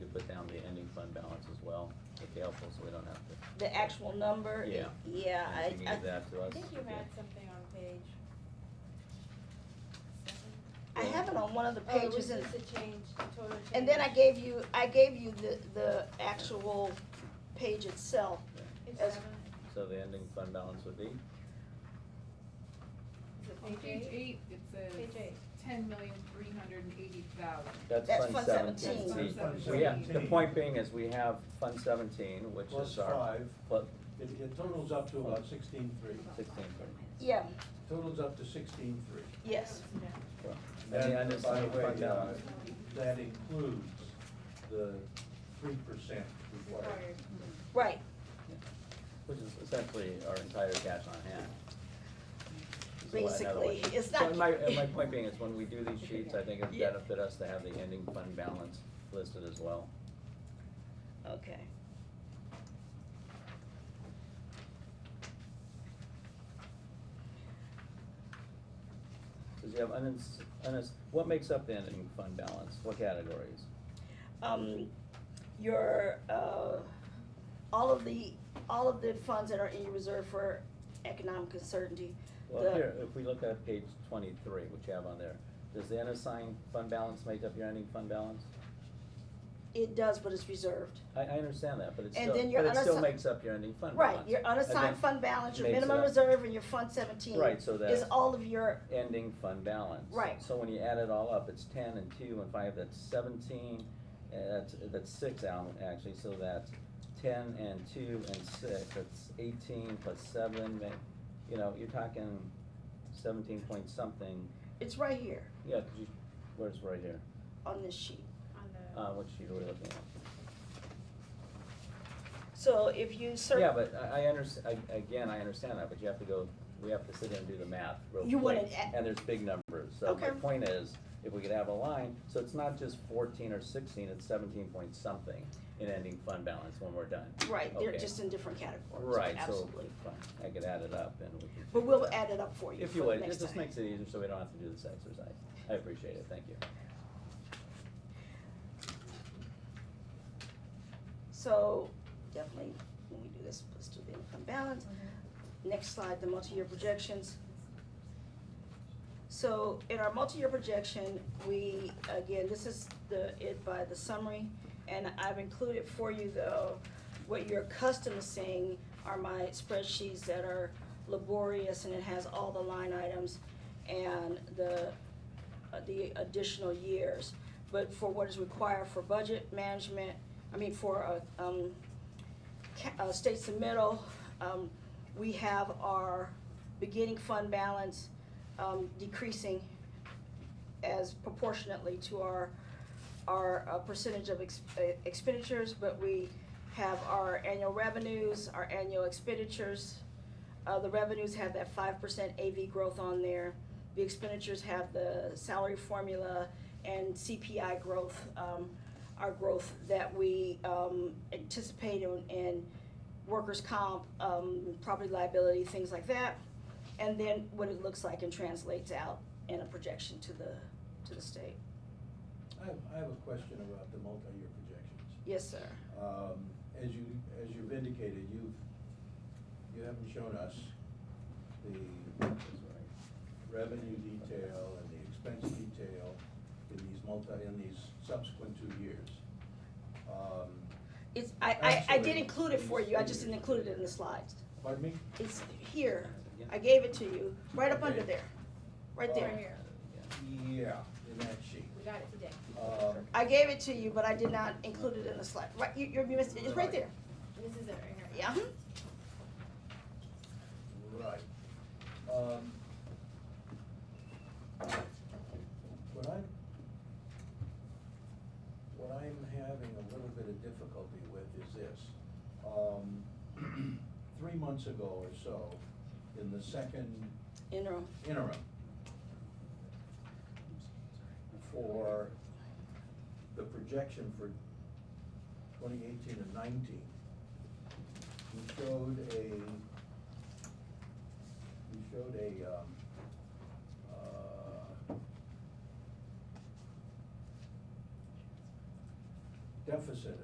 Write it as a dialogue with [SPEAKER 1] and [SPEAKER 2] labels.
[SPEAKER 1] fund balance as well, if helpful, so we don't have to.
[SPEAKER 2] The actual number?
[SPEAKER 1] Yeah.
[SPEAKER 2] Yeah, I,
[SPEAKER 1] If you
[SPEAKER 2] I-
[SPEAKER 1] need that to
[SPEAKER 3] I
[SPEAKER 1] us.
[SPEAKER 3] think you
[SPEAKER 1] yeah.
[SPEAKER 3] had something on page seven.
[SPEAKER 2] I have it on one of the
[SPEAKER 3] Oh, it was
[SPEAKER 2] pages and,
[SPEAKER 3] just a change, a total change.
[SPEAKER 2] and then I gave you, I gave you the, the actual page itself.
[SPEAKER 3] Page
[SPEAKER 2] as-
[SPEAKER 3] seven,
[SPEAKER 1] So the ending fund balance would be,
[SPEAKER 3] is it
[SPEAKER 4] On page
[SPEAKER 3] page eight?
[SPEAKER 4] eight, it
[SPEAKER 3] Page
[SPEAKER 4] says
[SPEAKER 3] eight.
[SPEAKER 4] ten million, three hundred and eighty thousand.
[SPEAKER 1] that's
[SPEAKER 2] That's
[SPEAKER 1] fund
[SPEAKER 2] fund
[SPEAKER 1] seventeen.
[SPEAKER 2] 17.
[SPEAKER 4] That's fund
[SPEAKER 1] So, yeah, the
[SPEAKER 4] 17.
[SPEAKER 1] point being is we have fund seventeen, which
[SPEAKER 5] Plus
[SPEAKER 1] is uh, our,
[SPEAKER 5] five,
[SPEAKER 1] but
[SPEAKER 5] it, it totals up to about sixteen-three,
[SPEAKER 1] sixteen,
[SPEAKER 2] Yeah,
[SPEAKER 5] totals up to sixteen-three.
[SPEAKER 2] yes.
[SPEAKER 1] well, and the
[SPEAKER 5] And
[SPEAKER 1] unassigned
[SPEAKER 5] by the way,
[SPEAKER 1] fund balance.
[SPEAKER 5] uh, That includes the three percent required.
[SPEAKER 3] Required.
[SPEAKER 2] Right,
[SPEAKER 1] Which is essentially our entire cash on hand. So in other
[SPEAKER 2] basically,
[SPEAKER 1] words-
[SPEAKER 2] it's
[SPEAKER 1] So
[SPEAKER 2] not.
[SPEAKER 1] my, and my point being is when we do these sheets, I think it'd benefit us to have the ending fund balance listed as well.
[SPEAKER 2] Okay.
[SPEAKER 1] Cause you have unins, unass, what makes up the ending fund balance? What categories?
[SPEAKER 2] Um, your, uh, all of the, all of the funds that are in your reserve for economic uncertainty.
[SPEAKER 1] Well,
[SPEAKER 2] the-
[SPEAKER 1] here, if we look at page twenty-three, which you have on there, does the unassigned fund balance make up your ending fund balance?
[SPEAKER 2] It does, but it's reserved.
[SPEAKER 1] I, I understand that, but it
[SPEAKER 2] And
[SPEAKER 1] still,
[SPEAKER 2] then your
[SPEAKER 1] but it still
[SPEAKER 2] unassi-
[SPEAKER 1] makes up your ending fund balance.
[SPEAKER 2] Right, your unassigned fund balance, your
[SPEAKER 1] makes it
[SPEAKER 2] minimum
[SPEAKER 1] up.
[SPEAKER 2] reserve, and your fund seventeen.
[SPEAKER 1] Right, so
[SPEAKER 2] Is
[SPEAKER 1] that's-
[SPEAKER 2] all of your,
[SPEAKER 1] ending fund balance.
[SPEAKER 2] Right.
[SPEAKER 1] So when you add it all up, it's ten and two and five, that's seventeen, uh, that's, that's six out, actually, so that's ten and two and six, that's eighteen plus seven, ma- you know, you're talking seventeen point something,
[SPEAKER 2] it's right here
[SPEAKER 1] yeah, 'cause you, where's right here,
[SPEAKER 2] on this sheet.
[SPEAKER 3] On the.
[SPEAKER 1] uh, what sheet are we looking at?
[SPEAKER 2] So if you cer-
[SPEAKER 1] Yeah, but I, I underst- I, again, I understand that, but you have to go, we have to sit there and do the math real quick.
[SPEAKER 2] You wouldn't a-
[SPEAKER 1] And there's big numbers, so my
[SPEAKER 2] Okay.
[SPEAKER 1] point is, if we could have a line, so it's not just fourteen or sixteen, it's seventeen point something in ending fund balance when we're done.
[SPEAKER 2] Right, they're
[SPEAKER 1] Okay.
[SPEAKER 2] just in different categories.
[SPEAKER 1] Right, so,
[SPEAKER 2] Absolutely.
[SPEAKER 1] fine, I could add it up and we can.
[SPEAKER 2] But we'll add it up for you
[SPEAKER 1] If
[SPEAKER 2] for
[SPEAKER 1] you
[SPEAKER 2] the
[SPEAKER 1] would, it
[SPEAKER 2] next
[SPEAKER 1] just
[SPEAKER 2] time.
[SPEAKER 1] makes it easier, so we don't have to do this exercise, I appreciate it, thank you.
[SPEAKER 2] So definitely, when we do this, let's do the income balance. Next slide, the multi-year projections. So in our multi-year projection, we, again, this is the, it by the summary, and I've included for you though, what you're accustomed to seeing are my spreadsheets that are laborious and it has all the line items and the, uh, the additional years. But for what is required for budget management, I mean, for, uh, um, ca- uh, state submittal, um, we have our beginning fund balance, um, decreasing as proportionately to our, our uh, percentage of ex- uh, expenditures, but we have our annual revenues, our annual expenditures. Uh, the revenues have that five percent AV growth on there. The expenditures have the salary formula and CPI growth, um, our growth that we, um, anticipate in, in workers' comp, um, property liability, things like that. And then what it looks like and translates out in a projection to the, to the state.
[SPEAKER 5] I have, I have a question about the multi-year projections.
[SPEAKER 2] Yes, sir.
[SPEAKER 5] Um, as you, as you've indicated, you've, you haven't shown us the revenue detail and the expense detail in these multi, in these subsequent two years. Um,
[SPEAKER 2] It's, I, I, I did
[SPEAKER 5] Actually,
[SPEAKER 2] include it for you, I just didn't
[SPEAKER 5] it's here.
[SPEAKER 2] include it in the slides.
[SPEAKER 5] Pardon me?
[SPEAKER 2] It's here, I gave it to you, right up under
[SPEAKER 5] Okay.
[SPEAKER 2] there, right
[SPEAKER 5] Right
[SPEAKER 2] there.
[SPEAKER 5] here.
[SPEAKER 1] Yeah.
[SPEAKER 5] Uh, Yeah, in that sheet.
[SPEAKER 3] We got it today.
[SPEAKER 5] Um,
[SPEAKER 2] I gave it to you, but I did not include it in the slide, right, you, you're, you missed it. it's right there,
[SPEAKER 3] This is it right here.
[SPEAKER 2] yeah. mhm.
[SPEAKER 5] Right. Um, What I'm, what I'm having a little bit of difficulty with is this. Um, Three months ago or so, in the second
[SPEAKER 2] Interim,
[SPEAKER 5] interim for the projection for twenty eighteen and nineteen, we showed a, we showed a, um, uh, deficit